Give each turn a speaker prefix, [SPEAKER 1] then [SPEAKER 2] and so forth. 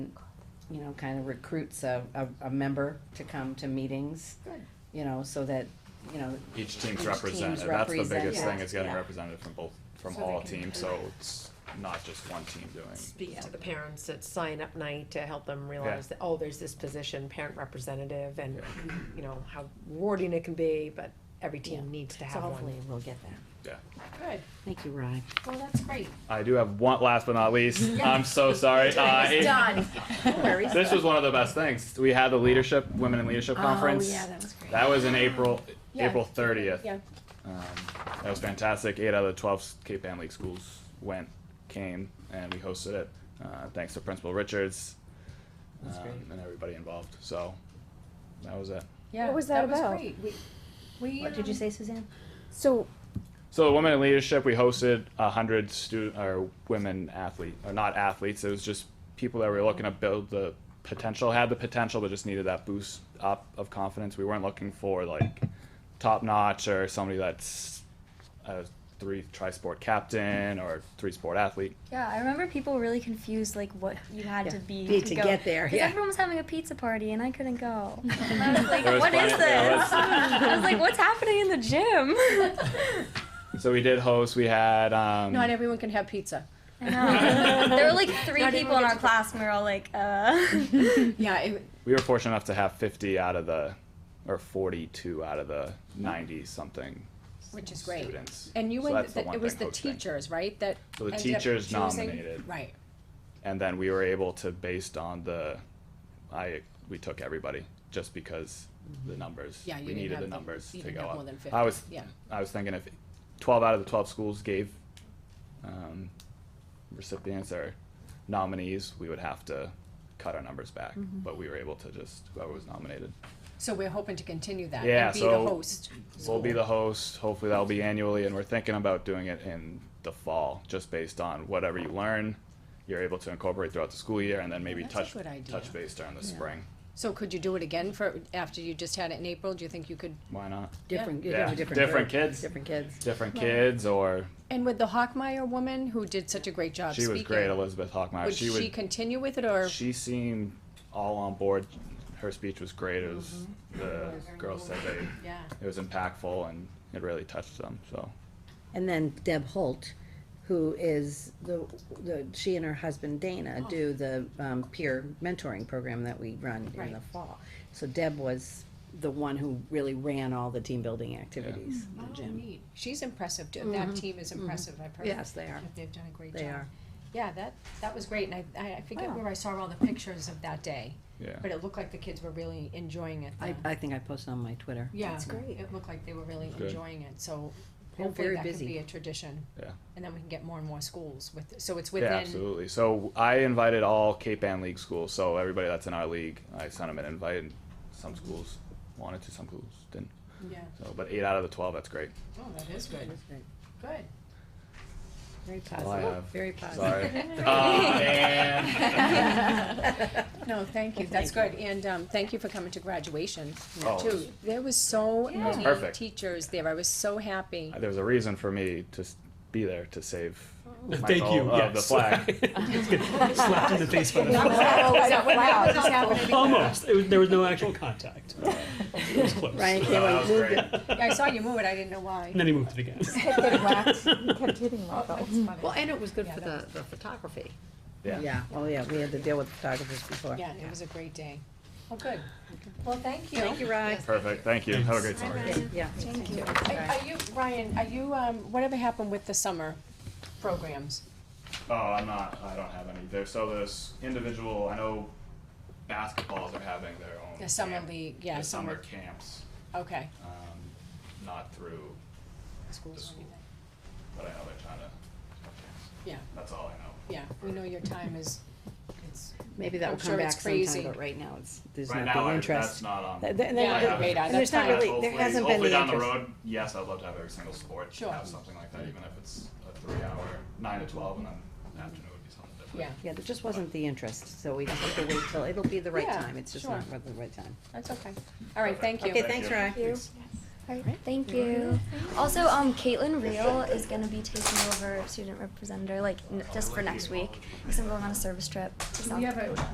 [SPEAKER 1] you know, kind of recruits a, a, a member to come to meetings.
[SPEAKER 2] Good.
[SPEAKER 1] You know, so that, you know,
[SPEAKER 3] Each
[SPEAKER 1] Each
[SPEAKER 3] team's
[SPEAKER 1] team's
[SPEAKER 3] represented, that's the
[SPEAKER 1] represented.
[SPEAKER 3] biggest thing,
[SPEAKER 2] Yeah.
[SPEAKER 3] is getting
[SPEAKER 1] Yeah.
[SPEAKER 3] represented from both, from
[SPEAKER 2] So they
[SPEAKER 3] all
[SPEAKER 2] can
[SPEAKER 3] teams, so
[SPEAKER 2] interact.
[SPEAKER 3] it's not just one team doing.
[SPEAKER 4] speak to the parents at sign up night to help them realize that, oh, there's this position, parent representative, and, you know, how rewarding it can be, but every
[SPEAKER 1] Yeah.
[SPEAKER 4] team needs to
[SPEAKER 1] so
[SPEAKER 4] have
[SPEAKER 1] hopefully
[SPEAKER 4] one.
[SPEAKER 1] we'll get that.
[SPEAKER 3] Yeah.
[SPEAKER 2] Good.
[SPEAKER 1] Thank you, Ryan.
[SPEAKER 2] Well, that's great.
[SPEAKER 3] I do have one, last but not least, I'm so sorry. Uh, it-
[SPEAKER 2] Done.
[SPEAKER 3] This was one of the best things. We had the leadership, women in leadership conference.
[SPEAKER 2] Oh, yeah, that was great.
[SPEAKER 3] That was in April,
[SPEAKER 2] Yeah.
[SPEAKER 3] April thirtieth.
[SPEAKER 2] Yeah.
[SPEAKER 3] Um, that was fantastic. Eight out of the twelve Cape Ann League schools went, came, and we hosted it. Uh, thanks to Principal Richards
[SPEAKER 1] That's
[SPEAKER 3] um,
[SPEAKER 1] great.
[SPEAKER 3] and everybody involved. So that was it.
[SPEAKER 1] Yeah.
[SPEAKER 5] What was that about?
[SPEAKER 2] great. We, we.
[SPEAKER 1] What did you
[SPEAKER 2] um,
[SPEAKER 1] say, Suzanne?
[SPEAKER 5] So,
[SPEAKER 3] So the women in leadership, we hosted a hundred student or women athlete or not athletes. It was just people that were looking to build the potential, had the potential, but just needed that boost up of confidence. We weren't looking for like top notch or somebody that's a three tri-sport captain or three-sport athlete.
[SPEAKER 6] Yeah, I remember people really confused like what you had
[SPEAKER 1] Yeah,
[SPEAKER 6] to be,
[SPEAKER 1] be to
[SPEAKER 6] go.
[SPEAKER 1] get there,
[SPEAKER 6] 'Cause
[SPEAKER 1] yeah.
[SPEAKER 6] Everyone was having a pizza party and I couldn't go. And I was like,
[SPEAKER 3] There was
[SPEAKER 6] what is
[SPEAKER 3] plenty- there was-
[SPEAKER 6] this? I was like, what's happening in the gym?
[SPEAKER 3] So we did host. We had um,
[SPEAKER 2] Not everyone can have pizza.
[SPEAKER 6] I know. There were like three people in our class and we were all like, uh.
[SPEAKER 2] Yeah, it,
[SPEAKER 3] we were fortunate enough to have 50 out of the or 42 out of the 90 something
[SPEAKER 2] which is great.
[SPEAKER 3] students.
[SPEAKER 2] And you
[SPEAKER 3] So
[SPEAKER 2] and
[SPEAKER 3] that's the
[SPEAKER 2] the,
[SPEAKER 3] one
[SPEAKER 2] it was
[SPEAKER 3] thing
[SPEAKER 2] the
[SPEAKER 3] hosting.
[SPEAKER 2] teachers, right, that.
[SPEAKER 3] So the
[SPEAKER 2] ended up
[SPEAKER 3] teachers
[SPEAKER 2] choosing?
[SPEAKER 3] nominated.
[SPEAKER 2] Right.
[SPEAKER 3] and then we were able to based on the i we took everybody just because the numbers
[SPEAKER 2] Yeah, you
[SPEAKER 3] we
[SPEAKER 2] didn't
[SPEAKER 3] needed
[SPEAKER 2] have
[SPEAKER 3] the
[SPEAKER 2] the-
[SPEAKER 3] numbers
[SPEAKER 2] you
[SPEAKER 3] to
[SPEAKER 2] didn't
[SPEAKER 3] go
[SPEAKER 2] have
[SPEAKER 3] up
[SPEAKER 2] more than 50,
[SPEAKER 3] i was
[SPEAKER 2] yeah.
[SPEAKER 3] i was thinking if 12 out of the 12 schools gave um, recipients or nominees we would have to cut our numbers back
[SPEAKER 2] Mm-hmm.
[SPEAKER 3] but we were able to just whoever was nominated
[SPEAKER 2] So we're hoping to continue that
[SPEAKER 3] Yeah,
[SPEAKER 2] and be the
[SPEAKER 3] so-
[SPEAKER 2] host.
[SPEAKER 3] we'll be
[SPEAKER 2] school.
[SPEAKER 3] the host hopefully that'll be annually and we're thinking about doing it in the fall just based on whatever you learn you're able to incorporate throughout the school year and then maybe
[SPEAKER 2] that's a
[SPEAKER 3] touch
[SPEAKER 2] good idea.
[SPEAKER 3] touch base during the spring
[SPEAKER 2] So could you do it again for, after you just had it in April? Do you think you could?
[SPEAKER 3] Why not?
[SPEAKER 1] Different,
[SPEAKER 3] Yeah.
[SPEAKER 1] different, different.
[SPEAKER 3] Different
[SPEAKER 1] group,
[SPEAKER 3] kids.
[SPEAKER 1] Different kids.
[SPEAKER 3] Different kids, or
[SPEAKER 2] And with the Hockmeyer woman who did such a great job
[SPEAKER 3] she
[SPEAKER 2] uh, speaking.
[SPEAKER 3] was great, Elizabeth Hockmeyer.
[SPEAKER 2] Would
[SPEAKER 3] she
[SPEAKER 2] she
[SPEAKER 3] would.
[SPEAKER 2] continue with it or?
[SPEAKER 3] She seemed all on board. Her speech was great. It was
[SPEAKER 2] Mm-hmm.
[SPEAKER 3] the girls said they.
[SPEAKER 2] Yeah.
[SPEAKER 3] It was impactful and it really touched them. So
[SPEAKER 1] And then Deb Holt, who is the, the, she and her husband Dana do the, um, peer mentoring program that we run in the
[SPEAKER 2] Right.
[SPEAKER 1] fall. So Deb was the one who really ran all the team building activities in the
[SPEAKER 2] Oh,
[SPEAKER 1] gym.
[SPEAKER 2] neat. She's impressive. too. That team is impressive. I've heard.
[SPEAKER 1] Yes, they are.
[SPEAKER 2] They've done a great
[SPEAKER 1] They
[SPEAKER 2] job.
[SPEAKER 1] are.
[SPEAKER 2] Yeah, that, that was great, and I, I I forget
[SPEAKER 1] Wow.
[SPEAKER 2] where I saw all the pictures of that day,
[SPEAKER 3] yeah.
[SPEAKER 2] but it looked like the kids were really enjoying it.
[SPEAKER 1] I,
[SPEAKER 2] though.
[SPEAKER 1] I think I posted on my Twitter.
[SPEAKER 2] Yeah,
[SPEAKER 5] great.
[SPEAKER 2] it looked like they were really
[SPEAKER 3] Good.
[SPEAKER 2] enjoying it, so
[SPEAKER 1] They're
[SPEAKER 2] hopefully
[SPEAKER 1] very
[SPEAKER 2] that could
[SPEAKER 1] busy.
[SPEAKER 2] be a tradition.
[SPEAKER 3] Yeah.
[SPEAKER 2] And then we can get more and more schools with, so it's
[SPEAKER 3] yeah,
[SPEAKER 2] within,
[SPEAKER 3] absolutely. So I invited all Cape Ann League schools. So everybody that's in our league, I sent them an invite. And some schools wanted to, some schools didn't.
[SPEAKER 2] yeah,
[SPEAKER 3] So, but eight out of the twelve, that's great.
[SPEAKER 2] oh, that is good, good.
[SPEAKER 1] Very
[SPEAKER 3] all I
[SPEAKER 1] positive,
[SPEAKER 3] have.
[SPEAKER 1] very positive.
[SPEAKER 3] Sorry. uh, and
[SPEAKER 2] No, thank you, that's good, and, um, thank you for coming to graduation,
[SPEAKER 3] Oh, it
[SPEAKER 2] too.
[SPEAKER 3] was-
[SPEAKER 2] There was so
[SPEAKER 3] That was
[SPEAKER 2] many
[SPEAKER 3] perfect.
[SPEAKER 2] teachers there, I was so happy.
[SPEAKER 3] there was a reason for me to s- be there to save. Oh my
[SPEAKER 7] Thank
[SPEAKER 3] goal
[SPEAKER 7] you.
[SPEAKER 3] Of
[SPEAKER 7] yes.
[SPEAKER 3] the flag.
[SPEAKER 7] Slapped in the face by the
[SPEAKER 2] Wow,
[SPEAKER 7] flag.
[SPEAKER 2] that was happening.
[SPEAKER 7] Almost. It was- there was no actual contact. It was close.
[SPEAKER 1] Ryan
[SPEAKER 3] No, that
[SPEAKER 1] Kayway
[SPEAKER 3] was
[SPEAKER 1] moved
[SPEAKER 3] great.
[SPEAKER 1] it.
[SPEAKER 2] I saw you move it, I didn't know why.
[SPEAKER 7] And then he moved it again.
[SPEAKER 5] kept hitting my phone.
[SPEAKER 1] Well, and it was good
[SPEAKER 2] Yeah,
[SPEAKER 1] for the,
[SPEAKER 2] that
[SPEAKER 1] the photography.
[SPEAKER 3] Yeah.
[SPEAKER 1] Yeah, oh yeah, we had to deal with photographers before.
[SPEAKER 2] Yeah, it was a great day. Well, good. Well, thank you.
[SPEAKER 1] Oh, Thank you, Ryan.
[SPEAKER 3] Perfect. Thank you. Have a great summer.
[SPEAKER 1] Yeah.
[SPEAKER 6] Thank you.
[SPEAKER 2] Are are you, Ryan, are you, um, whatever happened with the summer programs?
[SPEAKER 3] Oh, I'm not. I don't have any there. So there's individual. I know basketballs are having their own.
[SPEAKER 2] The summer
[SPEAKER 3] camp-
[SPEAKER 2] league, yeah,
[SPEAKER 3] the summer,
[SPEAKER 2] summer-
[SPEAKER 3] camps,
[SPEAKER 2] Okay.
[SPEAKER 3] um, not through,
[SPEAKER 2] Schools
[SPEAKER 3] school.
[SPEAKER 2] or anything?
[SPEAKER 3] but I know they're trying to. have camps.
[SPEAKER 2] Yeah,
[SPEAKER 3] That's all I know.
[SPEAKER 2] yeah, we know your time is, it's,
[SPEAKER 1] Maybe that
[SPEAKER 2] I'm
[SPEAKER 1] will
[SPEAKER 2] sure
[SPEAKER 1] come back
[SPEAKER 2] it's crazy.
[SPEAKER 1] sometime, but right now it's, there's
[SPEAKER 3] Right
[SPEAKER 1] not
[SPEAKER 3] now,
[SPEAKER 1] the
[SPEAKER 3] I,
[SPEAKER 1] interest.
[SPEAKER 3] that's not on.
[SPEAKER 1] Th- th- and
[SPEAKER 2] Yeah,
[SPEAKER 1] then-
[SPEAKER 2] I
[SPEAKER 1] and
[SPEAKER 2] haven't. radar, that's
[SPEAKER 1] there's not
[SPEAKER 2] fine.
[SPEAKER 1] really, there
[SPEAKER 3] Hopefully-
[SPEAKER 1] hasn't been the interest.
[SPEAKER 3] Hopefully down the road, yes, I'd love to have every single sport
[SPEAKER 2] Sure.
[SPEAKER 3] have something like that, even if it's a three-hour, nine to twelve, and then afternoon would be something different.
[SPEAKER 2] yeah,
[SPEAKER 1] Yeah, there just wasn't the interest, so we just have to wait till, it'll be the right
[SPEAKER 2] Yeah,
[SPEAKER 1] time, it's just
[SPEAKER 2] sure.
[SPEAKER 1] not really the right time.
[SPEAKER 2] that's okay. All right, thank you.
[SPEAKER 1] Okay, thanks,
[SPEAKER 3] you.
[SPEAKER 1] Ryan.
[SPEAKER 6] Alright, thank you. Also, um, Caitlin Real is gonna be taking over student representative, like, n- just for next week, because I'm going on a service trip to South Dakota.